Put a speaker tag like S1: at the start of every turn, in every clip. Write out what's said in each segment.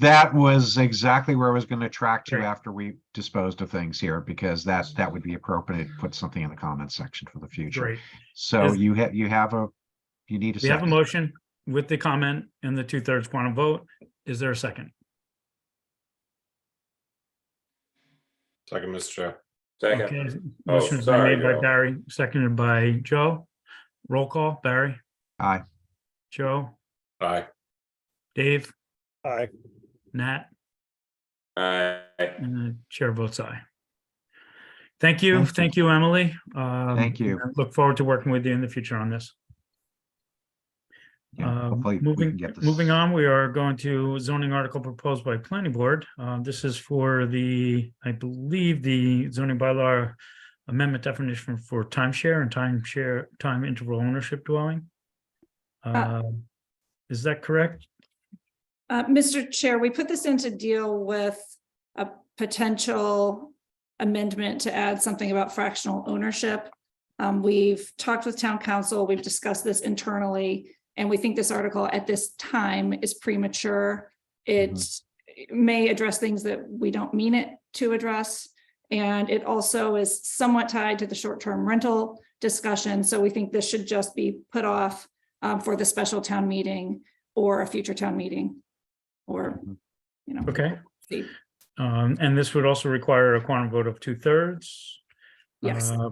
S1: That was exactly where I was gonna track to
S2: Great.
S1: after we disposed of things here, because that, that would be appropriate, to put something in the comments section for the future.
S2: Great.
S1: So
S2: Is-
S1: you have, you have a, you need a
S2: We have a
S1: second.
S2: motion with the comment and the two thirds quantum vote. Is there a second?
S3: Second, Mr. Chair.
S2: Okay,
S3: Oh,
S2: Motion has been
S3: sorry,
S2: made by
S3: Joe.
S2: Barry, seconded by Joe. Roll call, Barry,
S1: Aye,
S2: Joe,
S3: Aye.
S2: Dave,
S4: Aye.
S2: Nat,
S3: Aye.
S2: and the chair votes aye. Thank you,
S1: Thank you.
S2: thank you, Emily. Um,
S1: Thank you.
S2: I Look forward to working with you in the future on this.
S1: yeah,
S2: Uh,
S1: hopefully we can
S2: Moving,
S1: get this.
S2: moving on, we are going to zoning article proposed by planning board. Uh, This is for the, I believe, the zoning bylaw amendment definition for timeshare and timeshare, time interval ownership dwelling.
S5: Uh,
S2: Um, Is that correct?
S5: Uh, Mr. Chair, we put this in to deal with a potential amendment to add something about fractional ownership. Um, we've talked with town council, we've discussed this internally, and we think this article at this time is premature. It may address things that we don't mean it to address. And it also is somewhat tied to the short-term rental discussion, so we think this should just be put off um, for the special town meeting or a future town meeting. Or,
S1: Mhm.
S5: you know.
S2: Okay.
S5: see.
S2: Um, And this would also require a quorum vote of two thirds.
S5: Yes,
S2: Uh,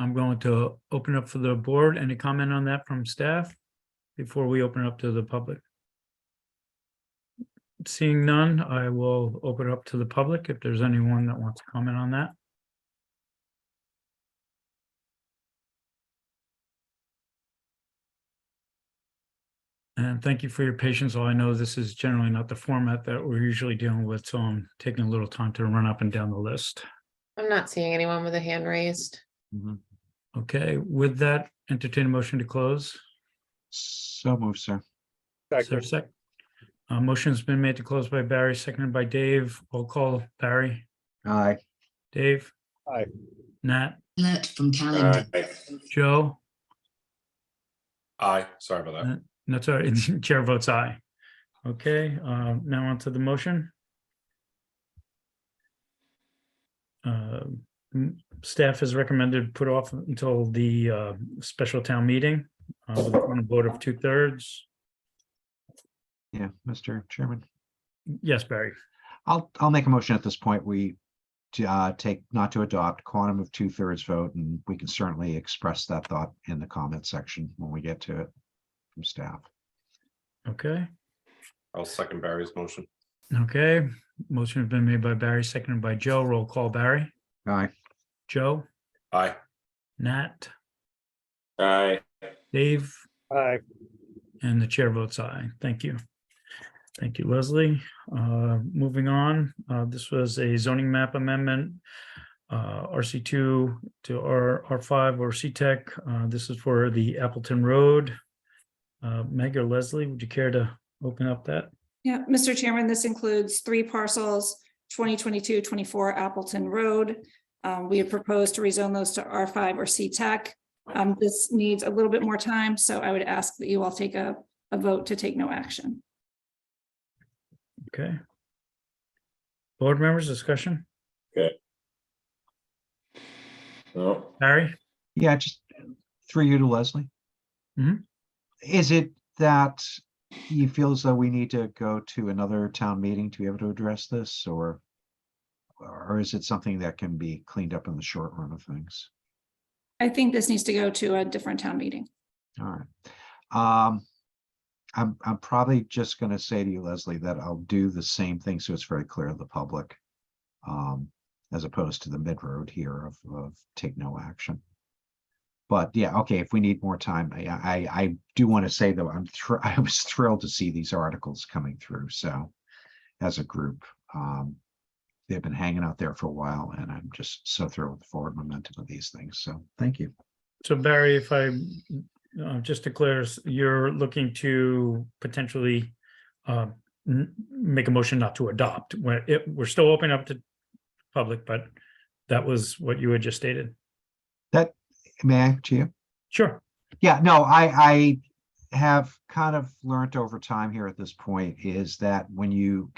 S2: I'm going to open up for the board. Any comment on that from staff before we open up to the public? Seeing none, I will open up to the public if there's anyone that wants to comment on that. And thank you for your patience. All I know this is generally not the format that we're usually dealing with, so I'm taking a little time to run up and down the list.
S6: I'm not seeing anyone with a hand raised.
S1: Mhm.
S2: Okay, with that, entertain a motion to close.
S1: So move, sir.
S2: Is there a sec? Uh, motion's been made to close by Barry, seconded by Dave. Roll call, Barry,
S1: Aye,
S2: Dave.
S4: Aye.
S2: Nat,
S7: Alert from calendar.
S2: Joe,
S3: Aye, sorry about that.
S2: no, sorry, chair votes aye. Okay, uh, now onto the motion. Uh, m- Staff has recommended put off until the, uh, special town meeting, uh, with a vote of two thirds.
S1: yeah, Mr. Chairman.
S2: Yes, Barry.
S1: I'll, I'll make a motion at this point. We to, uh, take not to adopt quantum of two thirds vote and we can certainly express that thought in the comment section when we get to it from staff.
S2: Okay.
S3: I'll second Barry's motion.
S2: Okay, motion has been made by Barry, seconded by Joe. Roll call Barry,
S1: Aye.
S2: Joe,
S3: Aye.
S2: Nat,
S3: Aye.
S2: Dave,
S4: Aye.
S2: and the chair votes aye. Thank you. Thank you, Leslie. Uh, Moving on, uh, this was a zoning map amendment. uh, RC2 to R, R5 or C-Tech. Uh, This is for the Appleton Road. Uh, Meg or Leslie, would you care to open up that?
S5: yeah, Mr. Chairman, this includes three parcels, 2022, 24 Appleton Road. Um, we have proposed to rezone those to R5 or C-Tech. Um, this needs a little bit more time, so I would ask that you all take a, a vote to take no action.
S2: Okay. Board members, discussion?
S3: No.
S2: Barry?
S1: Yeah, just through you to Leslie.
S2: Mhm.
S1: Is it that you feel as though we need to go to another town meeting to be able to address this or? Or is it something that can be cleaned up in the short run of things?
S5: I think this needs to go to a different town meeting.
S1: All right. Um, I'm, I'm probably just gonna say to you, Leslie, that I'll do the same thing, so it's very clear to the public. Um, as opposed to the mid-road here of, of take no action. But yeah, okay, if we need more time, I, I, I do want to say though, I'm thr- I was thrilled to see these articles coming through, so. As a group, um, they've been hanging out there for a while and I'm just so thrilled with the forward momentum of these things, so thank you.
S2: So Barry, if I, uh, just to clear, s- you're looking to potentially uh, n- make a motion not to adopt, where it, we're still open up to public, but that was what you had just stated.
S1: May I, Gia?
S2: Sure.
S1: Yeah, no, I, I have kind of learned over time here at this point is that when you